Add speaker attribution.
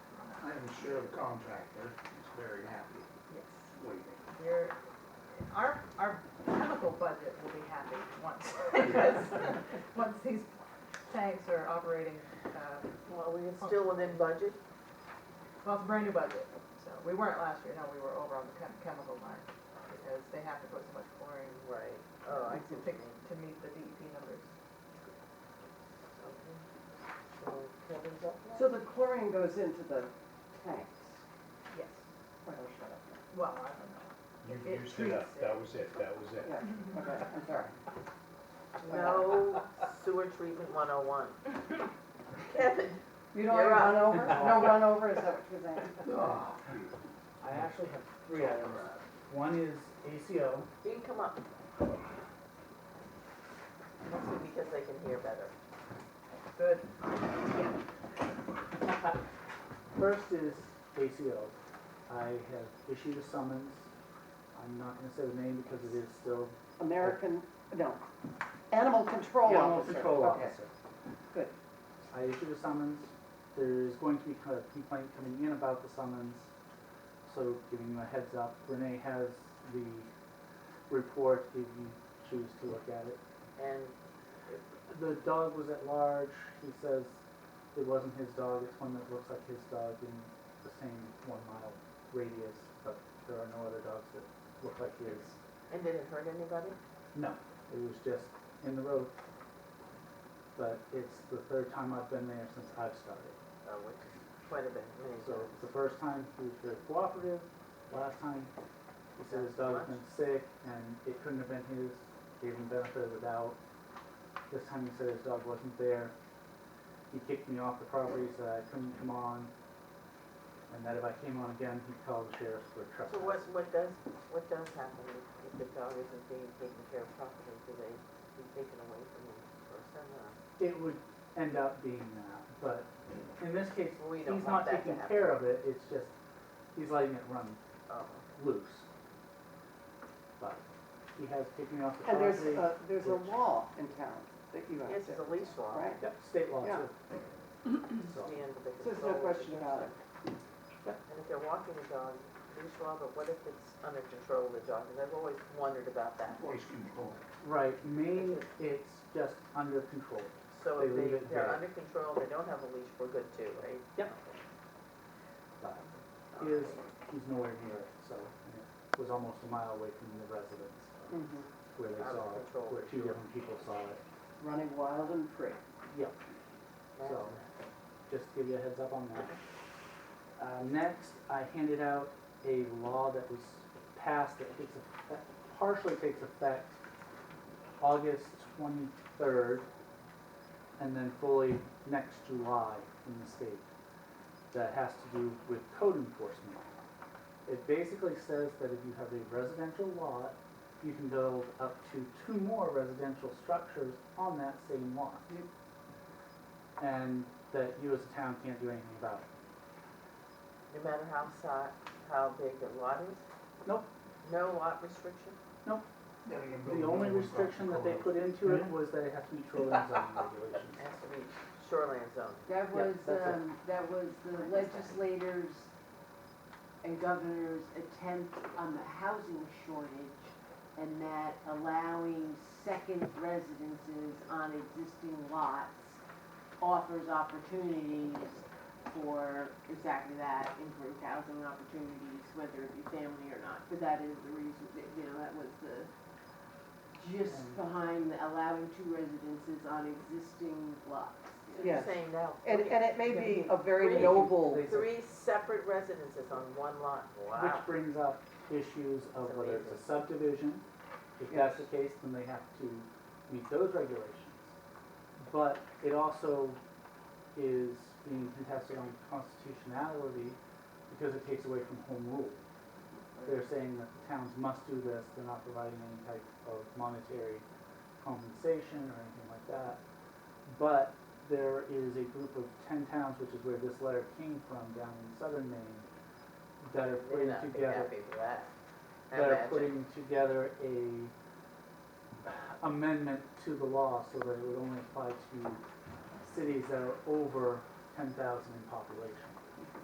Speaker 1: You're the contractor, is very happy. What do you think?
Speaker 2: Your, our, our chemical budget will be happy once, because, once these tanks are operating, uh,
Speaker 3: Well, we are still within budget.
Speaker 2: well, it's a brand new budget. So, we weren't last year, no, we were over on the chem- chemical line, because they have to put so much chlorine
Speaker 3: Right. Oh, I see.
Speaker 2: to,
Speaker 3: what you mean.
Speaker 2: to meet the DEP numbers.
Speaker 3: Okay. So Kevin's up now?
Speaker 4: So the chlorine goes into the tanks?
Speaker 2: Yes,
Speaker 4: Oh, shut up.
Speaker 2: well, I don't know.
Speaker 5: You
Speaker 2: It
Speaker 5: used it up,
Speaker 2: treats it.
Speaker 5: that was it, that was it.
Speaker 4: Yeah, okay, I'm sorry.
Speaker 3: No sewer treatment one oh one. Kevin,
Speaker 4: You don't have run over? No run over, is that what you're saying?
Speaker 1: Oh,
Speaker 6: I actually have three items. One is ACO,
Speaker 3: you can come up. Mostly because they can hear better.
Speaker 2: Good.
Speaker 6: first is ACO. I have issued a summons. I'm not gonna say the name because it is still
Speaker 4: American, no, animal control
Speaker 6: Yeah,
Speaker 4: officer.
Speaker 6: Control
Speaker 4: Okay.
Speaker 6: officer.
Speaker 4: good.
Speaker 6: I issued a summons, there's going to be a complaint coming in about the summons, so giving you a heads up, Renee has the report if you choose to look at it.
Speaker 3: And
Speaker 6: The dog was at large, he says it wasn't his dog, it's one that looks like his dog in the same one mile radius, but there are no other dogs that look like his.
Speaker 3: And did it hurt anybody?
Speaker 6: No, it was just in the road. But it's the third time I've been there since I've started.
Speaker 3: Uh, which is quite a bit, maybe.
Speaker 6: So the first time he was very cooperative, last time he said his dog's been sick and it couldn't have been his, gave him benefit of the doubt. This time he said his dog wasn't there. He kicked me off the property, said I couldn't come on. And that if I came on again, he'd call the sheriff for
Speaker 3: So
Speaker 6: trespass.
Speaker 3: what, what does, what does happen if- if the dog isn't being taken care of properly? Do they be taken away from the person or?
Speaker 6: It would end up being that, but in this case,
Speaker 3: We
Speaker 6: he's
Speaker 3: don't
Speaker 6: not
Speaker 3: want that to
Speaker 6: taking
Speaker 3: happen.
Speaker 6: care of it, it's just, he's letting it run
Speaker 3: Oh,
Speaker 6: loose. But he has kicked me off the
Speaker 4: And
Speaker 6: property.
Speaker 4: there's a, there's a law in town that you have
Speaker 3: yes,
Speaker 4: to,
Speaker 3: it's a leash law.
Speaker 4: right?
Speaker 6: Yep, state law
Speaker 4: Yeah.
Speaker 6: too. So,
Speaker 3: Stand with the
Speaker 4: So There's
Speaker 3: control
Speaker 4: no
Speaker 3: of the
Speaker 4: question about it.
Speaker 3: And if they're walking the dog, leash law, but what if it's under control of the dog? Because I've always wondered about that.
Speaker 1: voice control.
Speaker 6: right, Maine, it's just under control.
Speaker 3: So if
Speaker 6: They leave
Speaker 3: they,
Speaker 6: it
Speaker 3: they're
Speaker 6: there.
Speaker 3: under control, they don't have a leash, we're good too, right?
Speaker 6: Yep. But he is, he's nowhere near it, so, and it was almost a mile away from the residence uh,
Speaker 4: Mhm.
Speaker 6: where they
Speaker 3: Out of
Speaker 6: saw it,
Speaker 3: control.
Speaker 6: where two different people saw it.
Speaker 4: Running wild and free.
Speaker 6: Yep. So, just to give you a heads up on that. Uh, next, I handed out a law that was passed that takes, effect- partially takes effect August twenty-third, and then fully next July in the state, that has to do with code enforcement. It basically says that if you have a residential lot, you can build up to two more residential structures on that same lot and that you as a town can't do anything about it.
Speaker 3: No matter how si, how big the lot is?
Speaker 6: Nope.
Speaker 3: No lot restriction?
Speaker 1: Then again,
Speaker 6: The
Speaker 1: building
Speaker 6: only
Speaker 1: across the
Speaker 6: restriction that they
Speaker 1: corridor.
Speaker 6: put into it was that it has to be shoreline zoning
Speaker 3: It
Speaker 6: regulations.
Speaker 3: Has to be shoreline zone.
Speaker 7: That
Speaker 6: Yeah,
Speaker 7: was,
Speaker 6: that's it.
Speaker 7: um, that was the legislators and governor's attempt on the housing shortage and that allowing second residences on existing lots offers opportunities for exactly that, improved housing opportunities, whether it be family or not. But that is the reason, that, you know, that was the gist
Speaker 6: And-
Speaker 7: behind the allowing two residences on existing lots.
Speaker 3: So you're
Speaker 4: Yes.
Speaker 3: saying now,
Speaker 4: And,
Speaker 3: okay,
Speaker 4: and it may be a very
Speaker 3: Free.
Speaker 4: noble,
Speaker 6: They-
Speaker 3: three separate residences on one lot, wow.
Speaker 6: Which brings up issues of
Speaker 3: It's
Speaker 6: whether it's a
Speaker 3: amazing.
Speaker 6: subdivision. If that's the case, then they have to meet those regulations. But it also is being contested on constitutionality because it takes away from home rule. They're saying that the towns must do this, they're not providing any type of monetary compensation or anything like that. But there is a group of ten towns, which is where this letter came from, down in southern Maine, that are
Speaker 3: They're
Speaker 6: putting
Speaker 3: not big
Speaker 6: together
Speaker 3: happy with that. I
Speaker 6: that are
Speaker 3: imagine.
Speaker 6: putting together a amendment to the law so that it would only apply to cities that are over ten thousand in population.